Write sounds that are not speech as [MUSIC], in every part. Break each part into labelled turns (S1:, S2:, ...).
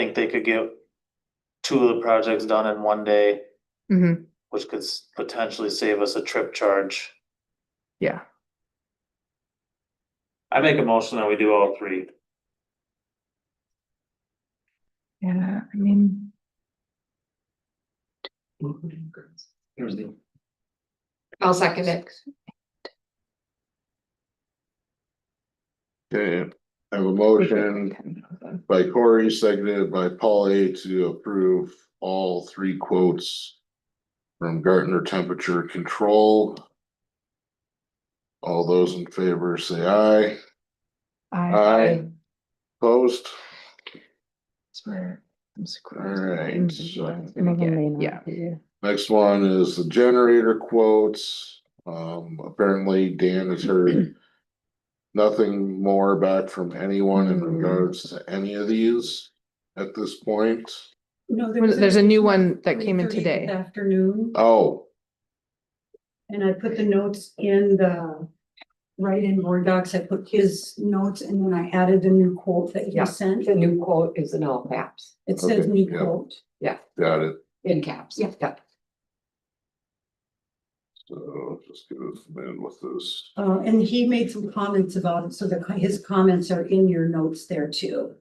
S1: think they could get two of the projects done in one day,
S2: Mhm.
S1: which could s- potentially save us a trip charge.
S2: Yeah.
S1: I make a motion that we do all three.
S2: Yeah, I mean,
S3: I'll second it.
S4: Okay, I have a motion by Corey, seconded by Polly to approve all three quotes from Gartner Temperature Control. All those in favor say aye. Aye. Opposed?
S2: Swear. I'm screwed.
S4: Alright, so
S2: Yeah.
S4: next one is the generator quotes. Um, apparently Dan has heard nothing more back from anyone in
S2: Hmm.
S4: regards to any of these at this point.
S5: No,
S2: Well, there's a new one that
S5: at
S2: came in
S5: 3:30 this
S2: today.
S5: Afternoon,
S4: Oh,
S5: and I put the notes in the write-in board docs. I put his notes and then I added the new quote that
S3: Yeah.
S5: he sent.
S3: The new quote is in all caps,
S5: It says
S4: Okay,
S5: new
S4: yeah.
S5: quote.
S4: got it.
S3: in caps.
S5: Yeah.
S4: So just get us in with this.
S5: Uh, and he made some comments about it, so the, his comments are in your notes there too.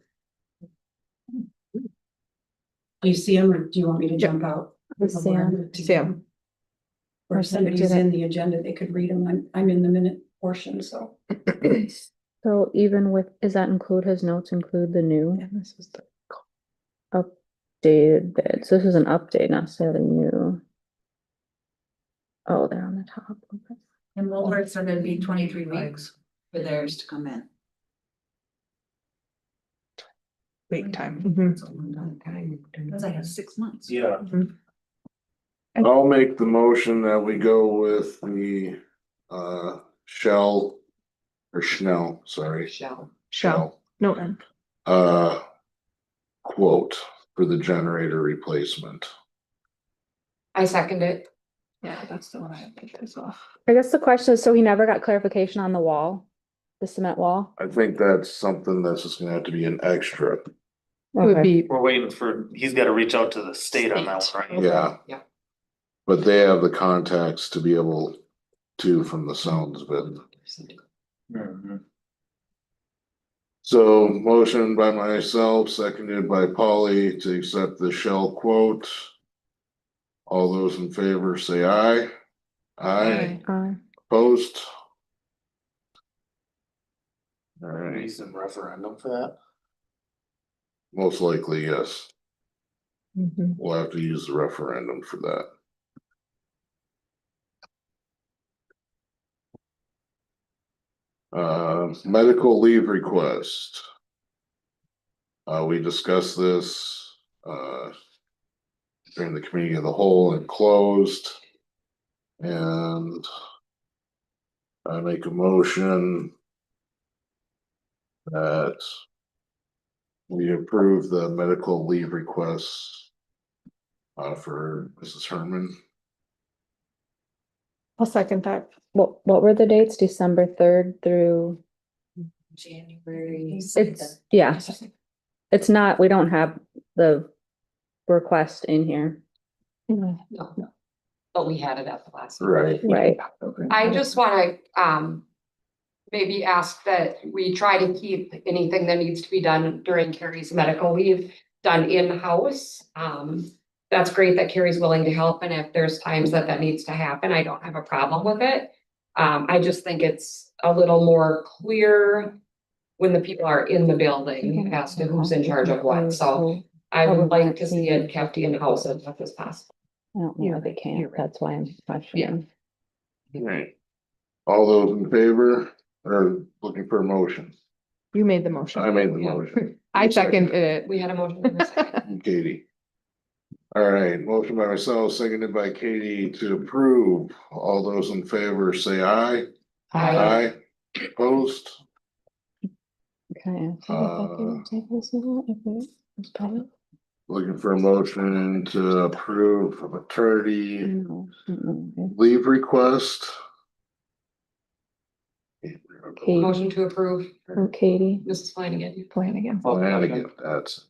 S5: Do you see him or do you want me to jump out? Sam.
S2: Sam.
S5: Or if somebody's in the agenda, they could read them. I'm, I'm in the minute portion, so.
S6: So even with, is that include his notes, include the new
S2: And this is the-
S6: updated bid? So this is an update, not necessarily new. Oh, they're on the top. okay.
S7: And Woolworths are gonna be twenty-three weeks for theirs to come in.
S2: Wait time. Mhm.
S7: That's a long time. Cause I have six months.
S1: Yeah.
S4: I'll make the motion that we go with the uh Shell or Schnell, sorry.
S3: Shall.
S2: Shall, no, M.
S4: Uh quote for the generator replacement.
S3: I second it.
S2: yeah, that's the one I put this off.
S6: I guess the question is, so he never got clarification on the wall, the cement wall?
S4: I think that's something that's just gonna have to be an extra.
S2: It would be,
S1: We're waiting for, he's gotta reach out to the state on that one, right?
S4: Yeah.
S3: Oh, Yeah.
S4: But they have the contacts to be able to from the sounds of it.
S1: Mhm.
S4: So motion by myself, seconded by Polly to accept the Shell quote. All those in favor say aye. Aye,
S6: Uh,
S4: opposed?
S1: Maybe
S4: Alright,
S1: some referendum for that.
S4: most likely, yes.
S2: Mhm.
S4: We'll have to use the referendum for that. Uh, medical leave request. Uh, we discussed this, uh. During the committee of the whole and closed. And. I make a motion. That. We approve the medical leave requests uh, for Mrs. Herman.
S2: I'll second that.
S6: what, what were the dates? December third through,
S7: January.
S6: it's, yeah, it's not, we don't have the request in here.
S3: No, no. But we had it at the last.
S4: Right.
S6: Right.
S3: I just wanna, um, maybe ask that we try to keep anything that needs to be done during Carrie's medical leave done in-house. Um, that's great that Carrie's willing to help, and if there's times that that needs to happen, I don't have a problem with it. Um, I just think it's a little more clear when the people are in the building as to who's in charge of what, so I would like to see it kept in-house as much as possible.
S6: I don't know, they can't, that's why I'm questioning.
S4: Right. All those in favor or looking for a motion?
S2: You made the motion.
S4: I made the [LAUGHS] motion,
S2: I
S4: you second.
S2: seconded it.
S3: We had a motion in a [LAUGHS] second.
S4: Katie. All right, motion by myself, seconded by Katie to approve. All those in favor say aye.
S3: Aye.
S4: Opposed?
S6: Okay.
S4: Uh,
S6: I
S4: Looking for a motion to approve of attorney leave request.
S6: Okay.
S3: Motion to approve.
S6: Oh, Katie,
S3: Mrs. Flanagan.
S2: Plan again.
S4: Flanagan, that's.